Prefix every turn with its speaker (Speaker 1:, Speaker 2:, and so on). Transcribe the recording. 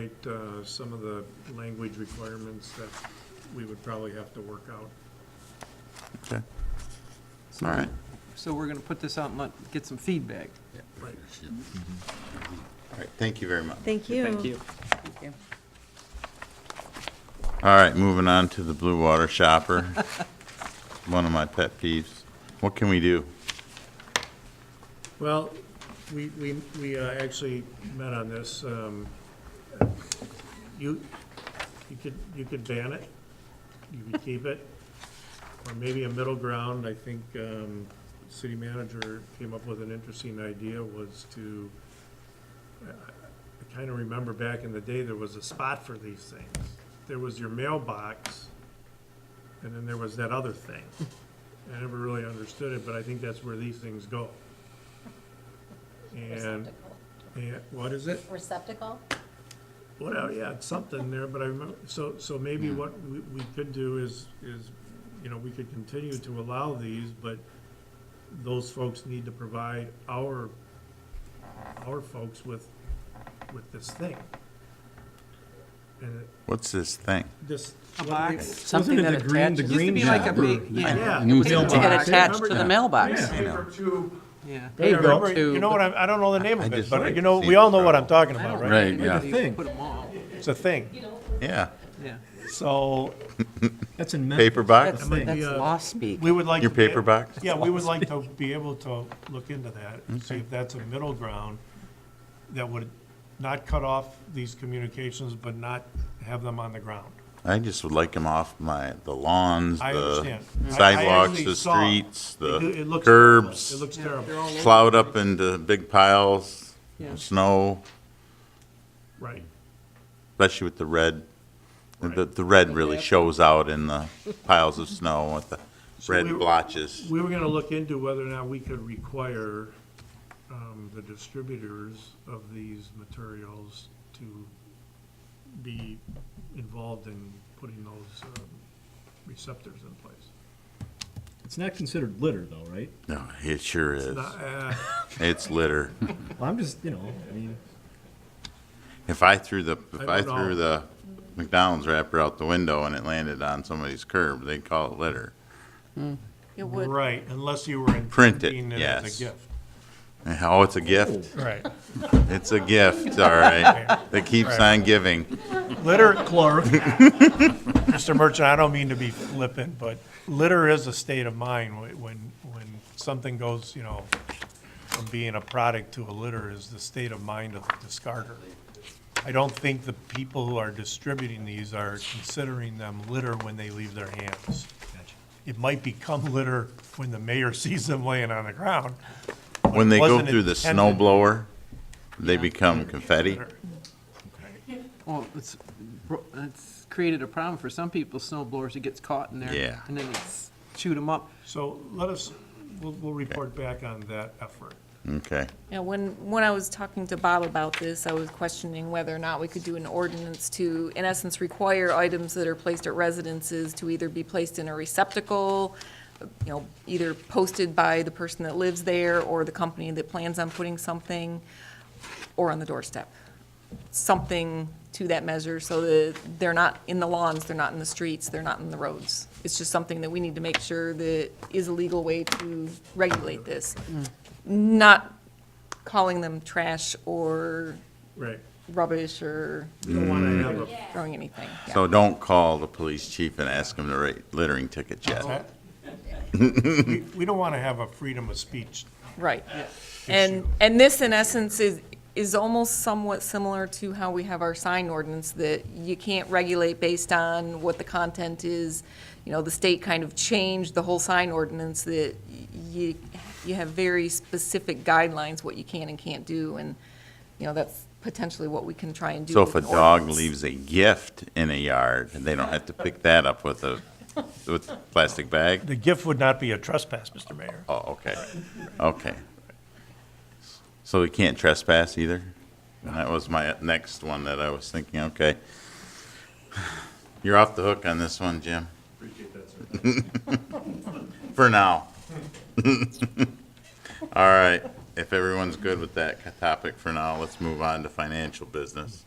Speaker 1: Right, uh, some of the language requirements that we would probably have to work out.
Speaker 2: Okay. All right.
Speaker 3: So we're gonna put this out and let- get some feedback.
Speaker 2: All right, thank you very much.
Speaker 4: Thank you.
Speaker 2: All right, moving on to the Blue Water Shopper. One of my pet peeves. What can we do?
Speaker 1: Well, we, we, we uh, actually met on this. um, You, you could, you could ban it, you could keep it, or maybe a middle ground. I think um, city manager came up with an interesting idea was to, I kind of remember back in the day, there was a spot for these things. There was your mailbox, and then there was that other thing. I never really understood it, but I think that's where these things go. And,
Speaker 5: Receptacle.
Speaker 1: and what is it?
Speaker 5: Receptacle?
Speaker 1: What, oh, yeah, it's something there, but I remember, so, so maybe what we, we could do is, is, you know, we could continue to allow these, but those folks need to provide our, our folks with, with this thing. And
Speaker 2: What's this thing?
Speaker 1: this.
Speaker 3: A
Speaker 1: what do they-
Speaker 3: box.
Speaker 6: Something
Speaker 7: Wasn't it
Speaker 6: that
Speaker 7: the green- the
Speaker 6: attaches-
Speaker 3: Used to
Speaker 7: green
Speaker 3: be like a
Speaker 7: shopper
Speaker 3: big, yeah.
Speaker 7: that-
Speaker 1: Yeah.
Speaker 6: New
Speaker 1: Paper
Speaker 6: mailbox.
Speaker 7: It
Speaker 1: attached
Speaker 7: attached
Speaker 1: to
Speaker 7: to
Speaker 1: the
Speaker 7: the mailbox.
Speaker 1: Paper tube.
Speaker 3: Yeah.
Speaker 1: I
Speaker 7: There you go.
Speaker 1: remember- You know what, I'm- I don't know the name
Speaker 2: I
Speaker 1: of it,
Speaker 2: just
Speaker 1: but
Speaker 2: like
Speaker 1: you know,
Speaker 2: seeing
Speaker 1: we all know what
Speaker 2: the-
Speaker 1: I'm talking
Speaker 3: I
Speaker 1: about,
Speaker 3: don't
Speaker 1: right?
Speaker 6: Right,
Speaker 3: remember
Speaker 6: yeah.
Speaker 3: that you
Speaker 7: Thing.
Speaker 3: Put 'em all,
Speaker 1: It's a thing.
Speaker 2: Yeah,
Speaker 3: yeah.
Speaker 1: So
Speaker 7: That's in Memphis.
Speaker 2: paper box?
Speaker 7: That's the
Speaker 1: Might
Speaker 7: thing.
Speaker 1: be
Speaker 6: That's
Speaker 1: a-
Speaker 6: law speak.
Speaker 1: we would like.
Speaker 2: Your
Speaker 1: to be-
Speaker 2: paper box?
Speaker 1: Yeah, we would like to be able to look into that, and see if that's a middle ground that would not cut off these communications, but not have them on the ground.
Speaker 2: I just would like them off my, the lawns,
Speaker 1: I
Speaker 2: the
Speaker 1: understand. I- I
Speaker 2: sidewalks,
Speaker 1: actually
Speaker 2: the
Speaker 1: saw-
Speaker 2: streets,
Speaker 1: It- it
Speaker 2: the
Speaker 1: looks terrible. It
Speaker 2: curbs,
Speaker 1: looks terrible,
Speaker 2: plowed up into big piles,
Speaker 3: Yeah.
Speaker 2: snow,
Speaker 1: right.
Speaker 2: especially with the red. The,
Speaker 1: Right.
Speaker 2: the red really shows out in the piles of snow with the red
Speaker 1: we-
Speaker 2: blotches.
Speaker 1: We were gonna look into whether or not we could require, um, the distributors of these materials to be involved in putting those, um, receptors in place.
Speaker 7: It's not considered litter though, right?
Speaker 2: No, it sure is.
Speaker 1: Not, uh,
Speaker 2: It's litter.
Speaker 7: Well, I'm just, you know, I mean,
Speaker 2: If I threw the, if
Speaker 1: I
Speaker 2: I
Speaker 1: don't know.
Speaker 2: threw the McDonald's wrapper out the window and it landed on somebody's curb, they'd call it litter.
Speaker 8: It would,
Speaker 1: Right, unless you were
Speaker 2: Print it,
Speaker 1: intending it as
Speaker 2: yes.
Speaker 1: a gift.
Speaker 2: Oh, it's a gift.
Speaker 1: Right.
Speaker 2: It's a gift, all right. That keeps on giving.
Speaker 1: Litter. Clerk. Mr. Merchant, I don't mean to be flippant, but litter is a state of mind wh- when, when something goes, you know, from being a product to a litter is the state of mind of the discarder. I don't think the people who are distributing these are considering them litter when they leave their hands. It might become litter when the mayor sees them laying on the ground. but
Speaker 2: When
Speaker 1: it
Speaker 2: they go
Speaker 1: wasn't
Speaker 2: through the
Speaker 1: intended
Speaker 2: snow blower, they become confetti.
Speaker 1: litter.
Speaker 3: Well, it's, bro- it's created a problem for some people, snow blowers, it gets caught in there.
Speaker 2: Yeah.
Speaker 3: And then it's shoot 'em up.
Speaker 1: So let us, we'll, we'll report back on that effort.
Speaker 2: Okay.
Speaker 8: yeah, when, when I was talking to Bob about this, I was questioning whether or not we could do an ordinance to, in essence, require items that are placed at residences to either be placed in a receptacle, you know, either posted by the person that lives there or the company that plans on putting something, or on the doorstep. Something to that measure so that they're not in the lawns, they're not in the streets, they're not in the roads. It's just something that we need to make sure that is a legal way to regulate this. Not calling them trash or
Speaker 1: Right.
Speaker 8: rubbish or
Speaker 1: We don't want
Speaker 8: Mm.
Speaker 1: to have a
Speaker 8: throwing anything. Yeah.
Speaker 2: Mm-hmm. So don't call the police chief and ask him to write littering ticket
Speaker 1: Uh-huh.
Speaker 2: yet.
Speaker 1: We- We don't want to have a freedom of speech.
Speaker 8: Right. And, and this in essence is, is almost somewhat similar to how we have our sign ordinance that you can't regulate based on what the content is. You know, the state kind of changed the whole sign ordinance that y- you, you have very specific guidelines what you can and can't do. And, you know, that's potentially what we can try and do.
Speaker 2: So if
Speaker 8: with
Speaker 2: a
Speaker 8: an
Speaker 2: dog
Speaker 8: ordinance.
Speaker 2: leaves a gift in a yard, they don't have to pick that up with a, with a plastic bag?
Speaker 1: The gift would not be a trespass, Mr. Mayor.
Speaker 2: Oh, okay, okay. So we can't trespass either? And that was my next one that I was thinking, okay. You're off the hook on this one, Jim. For now. All right, if everyone's good with that topic for now, let's move on to financial business.